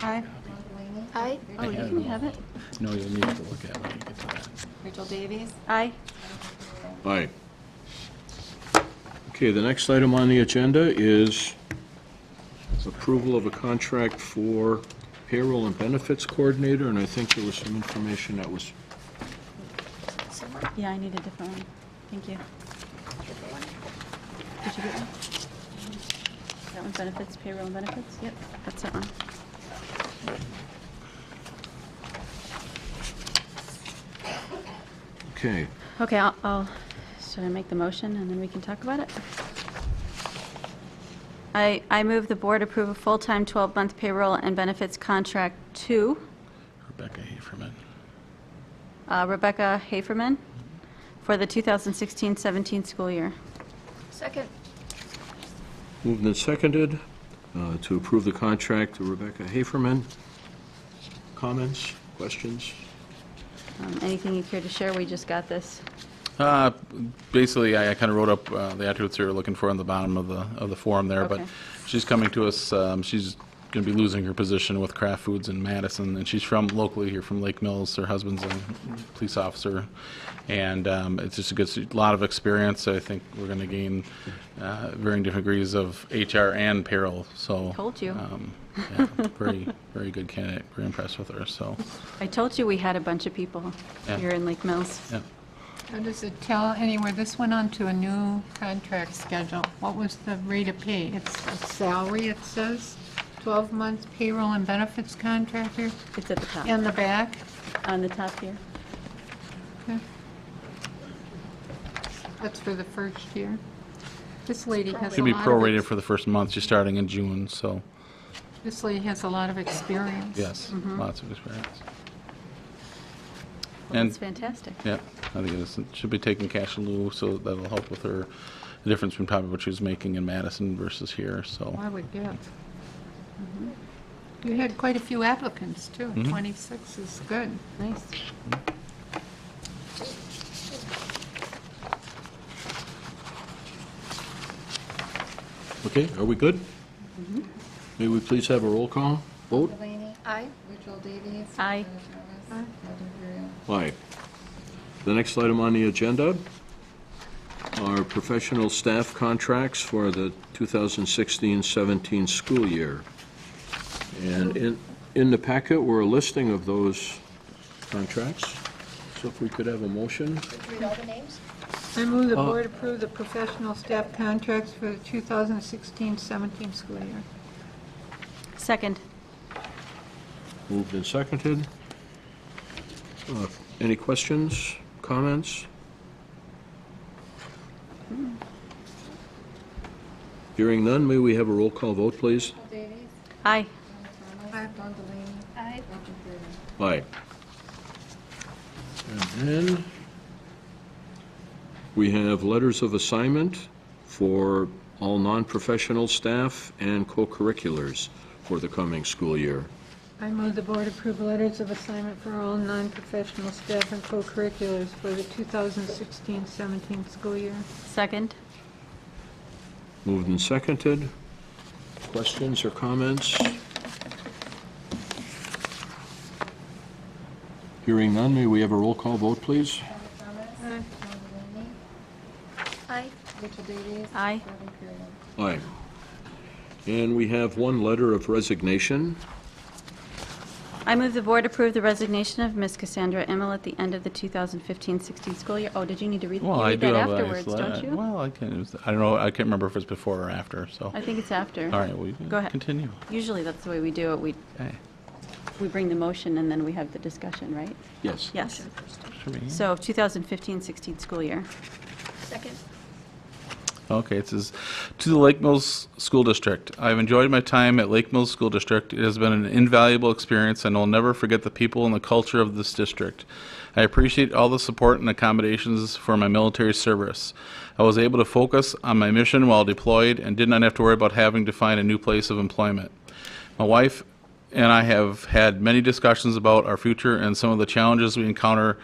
Aye. Aye. Oh, you have can it. have it. No, you'll need to look at it when you get to that. Rachel Davies. Aye. Aye. Okay, the next item on the agenda is approval of a contract for payroll and benefits coordinator, and I think there was some information that was, Yeah, I need a different one. Thank you. Did you get one? That one benefits, payroll and benefits? Yep, that's that one. okay. Okay, I'll- I'll, should I make the motion and then we can talk about it? I, I move the board approve a full-time 12-month payroll and benefits contract to Rebecca Haferman. uh, Rebecca Haferman for the 2016-17 school year. Second. Moved and seconded uh, to approve the contract to Rebecca Haferman. Comments, questions? Um, Anything you care to share? We just got this. Uh, Basically, I kind of wrote up uh, the attributes we were looking for on the bottom of the, of the form there, but Okay. she's coming to us, um, she's going to be losing her position with Kraft Foods in Madison, and she's from locally here, from Lake Mills, her husband's a police officer, and um, it's just a good, a lot of experience, I think we're going to gain uh, varying different degrees of HR and payroll, so. Told you. um, yeah, Very, very good candidate, very impressed with her, so, I told you we had a bunch of people Yeah. here in Lake Mills. yeah. Now, does it tell anywhere, this went on to a new contract schedule, what was the rate of pay? It's a salary, it says, 12 months payroll and benefits contractor, It's at the top, in the back? on the top here. Okay. That's for the first year. This lady has a Should be lot of, prorated ex- for the first month, she's starting in June, so. this lady has a lot of experience. Yes, Mm-hmm. lots of experience. That's And, fantastic. yeah, I think it is, should be taking cash in lieu, so that'll help with her, the difference between probably what she was making in Madison versus here, so. I would guess. You had quite a few applicants, too. Mm-hmm. 26 is good. Nice. Okay, are we good? May we please have a roll call vote? Delaney. Aye. Rachel Davies. Aye. Donna Jarvis. Heather Guerrero. Aye. The next item on the agenda are professional staff contracts for the 2016-17 school year. And in, in the packet were a listing of those contracts. So if we could have a motion? Read all the names. I move the Uh, board approve the professional staff contracts for the 2016-17 school year. Second. Moved and seconded. Uh, Any questions, comments? Hearing none, may we have a roll call vote, please? Rachel Davies. Aye. Donna Jarvis. Don Delaney. Aye. Roger Guerrero. Aye. And then, we have letters of assignment for all non-professional staff and co-curriculars for the coming school year. I move the board approve letters of assignment for all non-professional staff and co-curriculars for the 2016-17 school year. Second. Moved and seconded. Questions or comments? Hearing none, may we have a roll call vote, please? Donna Jarvis. Aye. Don Delaney. Aye. Rachel Davies. Aye. Roger Guerrero. Aye. And we have one letter of resignation. I move the board approve the resignation of Miss Cassandra Emmel at the end of the 2015-16 school year. Oh, did you need to read you Well, I read do that have a afterwards, don't you? Well, I can, I don't know, I can't remember if it's before or after, so. I think it's after. All right, we Go ahead. continue. Usually, that's the way we do it. We, Okay. we bring the motion and then we have the discussion, right? Yes. Yes. Should we- So 2015-16 school year. Second. Okay, it says, "To the Lake Mills School District. I have enjoyed my time at Lake Mills School District. It has been an invaluable experience, and I'll never forget the people and the culture of this district. I appreciate all the support and accommodations for my military service. I was able to focus on my mission while deployed and did not have to worry about having to find a new place of employment. My wife and I have had many discussions about our future and some of the challenges we encounter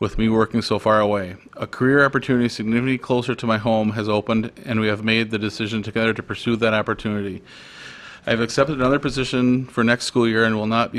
with me working so far away. A career opportunity significantly closer to my home has opened, and we have made the decision together to pursue that opportunity. I have accepted another position for next school year and will not be